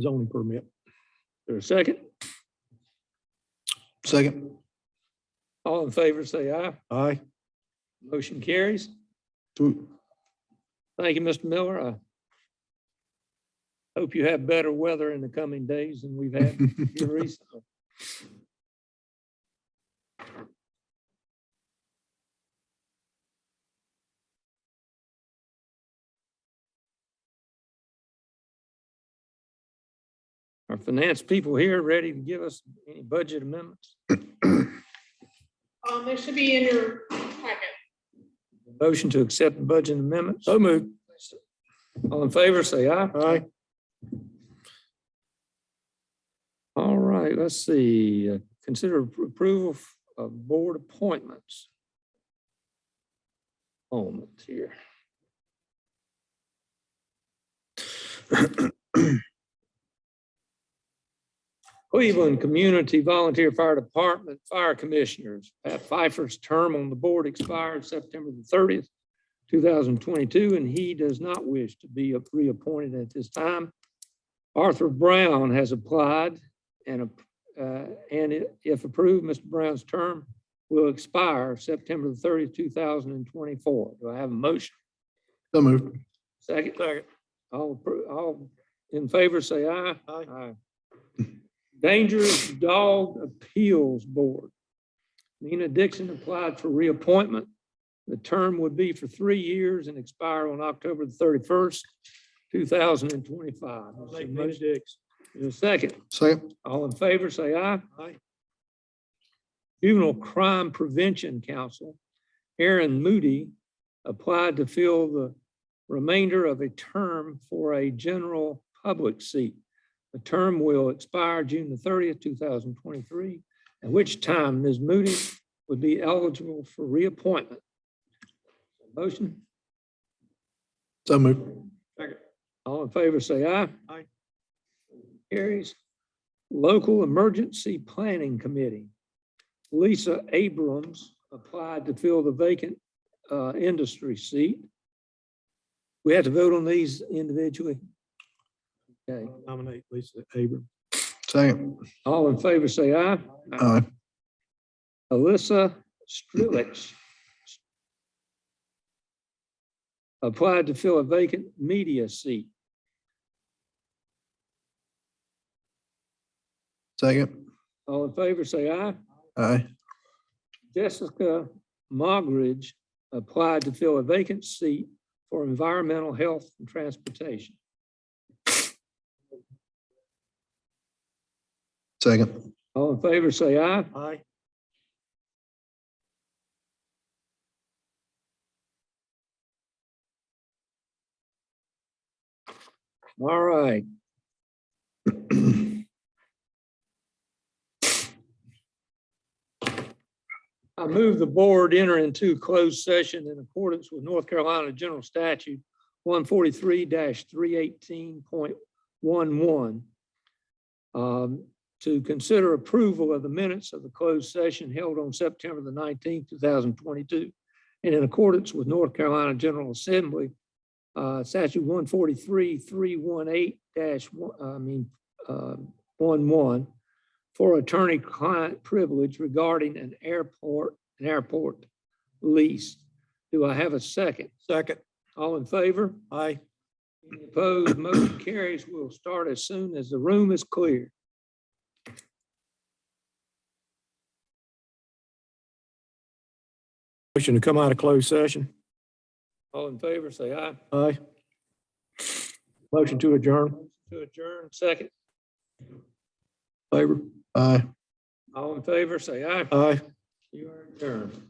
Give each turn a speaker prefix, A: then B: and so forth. A: zoning permit. There's a second.
B: Second.
A: All in favor, say aye.
B: Aye.
A: Motion carries.
B: Do-
A: Thank you, Mr. Miller. I hope you have better weather in the coming days than we've had here recently. Our finance people here ready to give us any budget amendments?
C: Um, it should be in your packet.
A: Motion to accept the budget amendment. So moved. All in favor, say aye.
B: Aye.
A: All right, let's see. uh, Consider appro- approval f- of board appointments. Moment here. Cleveland Community Volunteer Fire Department Fire Commissioners. Pat Pfeiffer's term on the board expires September the thirtieth, two thousand twenty-two, and he does not wish to be a- reappointed at this time. Arthur Brown has applied and, uh, and i- if approved, Mr. Brown's term will expire September the thirtieth, two thousand and twenty-four. Do I have a motion?
B: So moved.
A: Second. Second. All, appro- all in favor, say aye. Aye. Dangerous Dog Appeals Board. Nina Dixon applied for reappointment. The term would be for three years and expire on October the thirty-first, two thousand and twenty-five. Make Nina Dixon. a second.
B: Second.
A: All in favor, say aye. Aye. Juvenile Crime Prevention Council, Aaron Moody applied to fill the remainder of a term for a general public seat. The term will expire June the thirtieth, two thousand twenty-three, at which time Ms. Moody would be eligible for reappointment. Motion,
B: So moved.
A: all in favor, say aye.
B: Aye.
A: Carries. Local Emergency Planning Committee. Lisa Abrams applied to fill the vacant uh, industry seat. We have to vote on these individually. Okay,
D: Nominate Lisa Abrams.
B: Second.
A: all in favor, say aye.
B: Aye.
A: Alyssa Strilich applied to fill a vacant media seat.
B: Second.
A: All in favor, say aye.
B: Aye.
A: Jessica Mogridge applied to fill a vacant seat for environmental health and transportation.
B: Second.
A: All in favor, say aye.
D: Aye.
A: All right. I move the board enter into closed session in accordance with North Carolina General Statute one forty-three three eighteen point one one Um, to consider approval of the minutes of the closed session held on September the nineteenth, two thousand twenty-two, and in accordance with North Carolina General Assembly uh, statute one forty-three, three one eight dash, I mean, uh, one one for attorney-client privilege regarding an airport, an airport lease. Do I have a second?
D: Second.
A: All in favor?
D: Aye.
A: Any Opposed, motion carries. We'll start as soon as the room is clear.
D: Motion to come out of closed session.
A: All in favor, say aye.
D: Aye. Motion to adjourn.
A: To adjourn, second.
D: Favor.
B: Aye.
A: All in favor, say aye.
D: Aye.
A: You are adjourned.